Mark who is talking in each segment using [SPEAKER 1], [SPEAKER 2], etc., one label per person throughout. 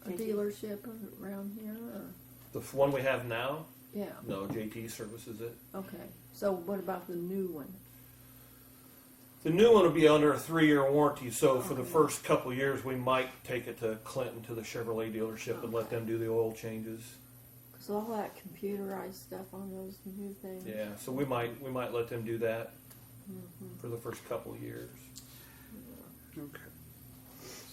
[SPEAKER 1] a
[SPEAKER 2] Thank you.
[SPEAKER 1] dealership around here, or,
[SPEAKER 3] The f- one we have now,
[SPEAKER 1] yeah,
[SPEAKER 3] no, JP services it.
[SPEAKER 1] okay. So what about the new one?
[SPEAKER 3] The new one will be under a three-year warranty, so for the
[SPEAKER 1] Okay.
[SPEAKER 3] first couple years, we might take it to Clinton to the Chevrolet dealership and let them do the oil changes.
[SPEAKER 1] Cause all that computerized stuff on those new things.
[SPEAKER 3] Yeah, so we might we might let them do that
[SPEAKER 4] Mm-hmm.
[SPEAKER 3] for the first couple years.
[SPEAKER 5] Okay.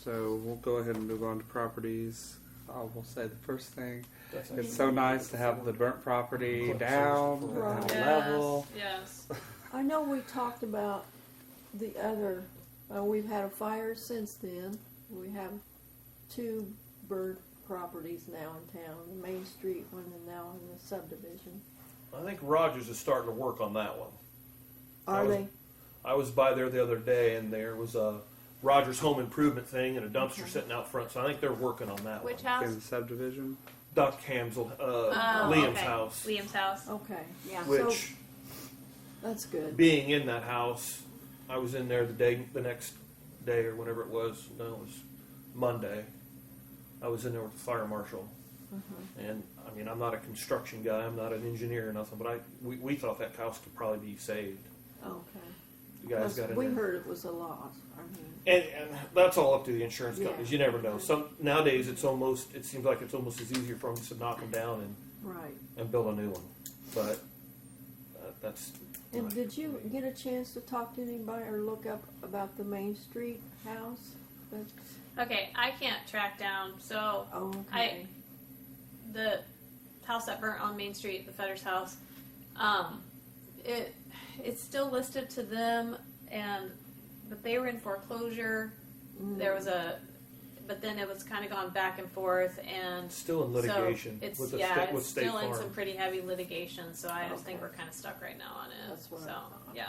[SPEAKER 5] So we'll go ahead and move on to properties. I will say the first thing,
[SPEAKER 3] That's
[SPEAKER 5] it's so nice to have the burnt property down
[SPEAKER 1] Right.
[SPEAKER 5] at a level.
[SPEAKER 4] Yes.
[SPEAKER 1] I know we talked about the other, uh, we've had a fire since then. We have two bird properties now in town, the Main Street one and now in the subdivision.
[SPEAKER 3] I think Rogers is starting to work on that one.
[SPEAKER 1] Are
[SPEAKER 3] was-
[SPEAKER 1] they?
[SPEAKER 3] I was by there the other day, and there was a Rogers Home Improvement thing and a dumpster sitting out front. So I think they're working on that
[SPEAKER 4] Which
[SPEAKER 3] one.
[SPEAKER 5] In the
[SPEAKER 4] house?
[SPEAKER 5] subdivision,
[SPEAKER 3] Doc Hamsel, uh,
[SPEAKER 4] Oh,
[SPEAKER 3] Liam's
[SPEAKER 4] okay.
[SPEAKER 3] house,
[SPEAKER 4] Liam's house.
[SPEAKER 1] Okay,
[SPEAKER 2] Yeah.
[SPEAKER 1] So-
[SPEAKER 3] which.
[SPEAKER 1] that's good.
[SPEAKER 3] being in that house, I was in there the day, the next day or whenever it was. No, it was Monday. I was in there with the fire marshal,
[SPEAKER 1] Uh-huh.
[SPEAKER 3] and I mean, I'm not a construction guy. I'm not an engineer or nothing, but I we, we thought that house could probably be saved.
[SPEAKER 1] Okay.
[SPEAKER 3] The guys
[SPEAKER 1] Plus,
[SPEAKER 3] got in
[SPEAKER 1] We
[SPEAKER 3] there.
[SPEAKER 1] heard it was a loss, I mean.
[SPEAKER 3] And, and that's all up to the insurance
[SPEAKER 1] Yeah.
[SPEAKER 3] companies. You never know. Some nowadays, it's almost it seems like it's almost as easier for them to knock them down and,
[SPEAKER 1] Right.
[SPEAKER 3] and build a new one. But uh, that's.
[SPEAKER 1] And
[SPEAKER 3] not
[SPEAKER 1] did you
[SPEAKER 3] me.
[SPEAKER 1] get a chance to talk to anybody or look up about the Main Street house? That's,
[SPEAKER 4] Okay, I can't track down. So
[SPEAKER 1] oh, okay.
[SPEAKER 4] the house that burnt on Main Street, the Fetter's house, um, it it's still listed to them, and but they were in foreclosure. There was a, but then it was kind of gone back and forth, and
[SPEAKER 3] Still in litigation
[SPEAKER 4] So it's
[SPEAKER 3] with the
[SPEAKER 4] yeah,
[SPEAKER 3] state,
[SPEAKER 4] it's
[SPEAKER 3] with state
[SPEAKER 4] still
[SPEAKER 3] farm.
[SPEAKER 4] in some pretty heavy litigation. So I just think
[SPEAKER 1] Okay.
[SPEAKER 4] we're kind of stuck right now on it.
[SPEAKER 1] That's what I
[SPEAKER 4] so
[SPEAKER 1] thought.
[SPEAKER 4] yeah,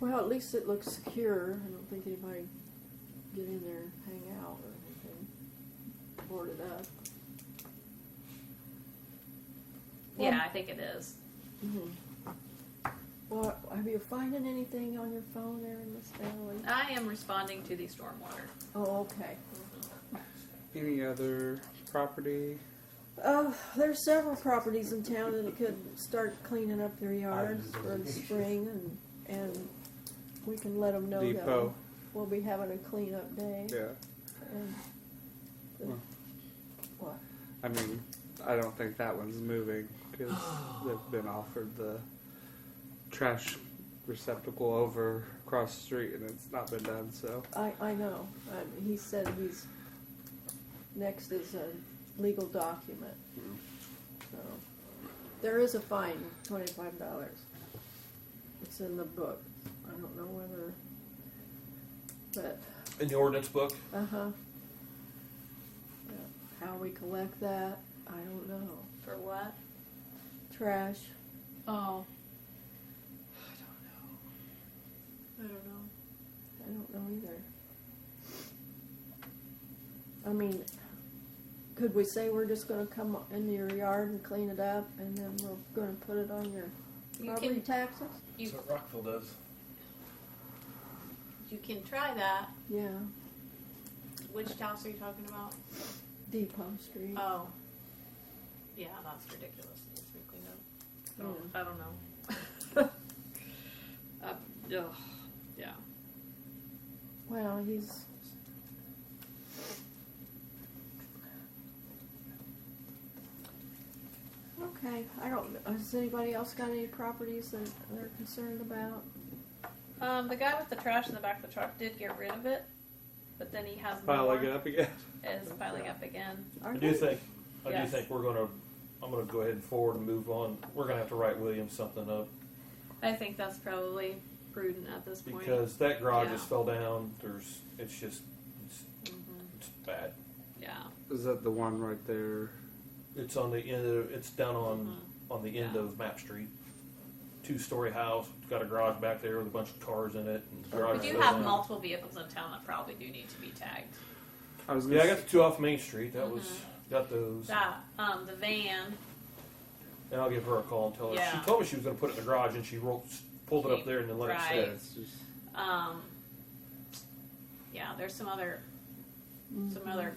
[SPEAKER 1] Well, at least it looks secure. I don't think anybody get in there and hang out or anything. Board it up. Well-
[SPEAKER 4] yeah, I think it is. Mm-hmm.
[SPEAKER 1] Well, have you finding anything on your phone there in this valley?
[SPEAKER 4] I am responding to the stormwater.
[SPEAKER 1] Oh, okay.
[SPEAKER 5] any other property?
[SPEAKER 1] Uh, there's several properties in town that could start cleaning up their yards for the spring and, and we can let them know that
[SPEAKER 5] Depot.
[SPEAKER 1] we'll be having a cleanup day.
[SPEAKER 5] Yeah.
[SPEAKER 1] and the-
[SPEAKER 5] Well.
[SPEAKER 1] What?
[SPEAKER 5] I mean, I don't think that one's moving because they've been offered the trash receptacle over across the street and it's not been done. So
[SPEAKER 1] I, I know, um, he said he's, next is a legal document.
[SPEAKER 5] Mm-hmm.
[SPEAKER 1] So, there is a fine, twenty-five dollars. It's in the book, I don't know whether, but
[SPEAKER 3] in the ordinance book.
[SPEAKER 1] Uh-huh. Yeah. How we collect that, I don't know.
[SPEAKER 4] For what?
[SPEAKER 1] Trash,
[SPEAKER 4] Oh. I don't know. I don't know.
[SPEAKER 1] I don't know either. I mean, could we say we're just gonna come into your yard and clean it up and then we're gonna put it on your
[SPEAKER 4] You
[SPEAKER 1] property
[SPEAKER 4] can-
[SPEAKER 1] taxes?
[SPEAKER 4] You-
[SPEAKER 3] what Rockville does.
[SPEAKER 4] You can try that.
[SPEAKER 1] Yeah,
[SPEAKER 4] Which house are you talking about?
[SPEAKER 1] Depot Street.
[SPEAKER 4] Oh. Yeah, that's ridiculous. It's been cleaned up. I don't- Oh, I don't know. Hmm. uh, ugh. Yeah.
[SPEAKER 1] Well, he's. Okay, I don't, has anybody else got any properties that they're concerned about?
[SPEAKER 4] Um, the guy with the trash in the back of the truck did get rid of it, but then he has more.
[SPEAKER 5] piling it up again.
[SPEAKER 4] Is piling up again.
[SPEAKER 1] Are
[SPEAKER 3] I do
[SPEAKER 1] they-
[SPEAKER 3] think, I
[SPEAKER 4] Yes.
[SPEAKER 3] do think we're gonna, I'm gonna go ahead and forward and move on. We're gonna have to write Williams something up
[SPEAKER 4] I think that's probably prudent at this point.
[SPEAKER 3] because that garage
[SPEAKER 4] Yeah. Mm-hmm.
[SPEAKER 3] just fell down. There's, it's just, it's, it's bad.
[SPEAKER 4] yeah.
[SPEAKER 5] Is that the one right there?
[SPEAKER 3] It's on the end of, it's down on, on the end
[SPEAKER 4] Mm-hmm. Yeah.
[SPEAKER 3] of Map Street. Two-story house, got a garage back there with a bunch of cars in it. And the garage
[SPEAKER 4] We do
[SPEAKER 3] fell
[SPEAKER 4] have
[SPEAKER 3] down.
[SPEAKER 4] multiple vehicles in town that probably do need to be tagged.
[SPEAKER 5] I was gonna
[SPEAKER 3] Yeah, I
[SPEAKER 5] s-
[SPEAKER 3] got the two off Main Street. That was, got those.
[SPEAKER 4] Mm-hmm. That um, the van.
[SPEAKER 3] And I'll give her a call and tell her.
[SPEAKER 4] Yeah.
[SPEAKER 3] She told me she was gonna put it in the garage and she rolled, pulled it up there and then let it
[SPEAKER 5] yeah,
[SPEAKER 4] Right.
[SPEAKER 3] sit.
[SPEAKER 5] it's just.
[SPEAKER 4] Um, yeah, there's some other some other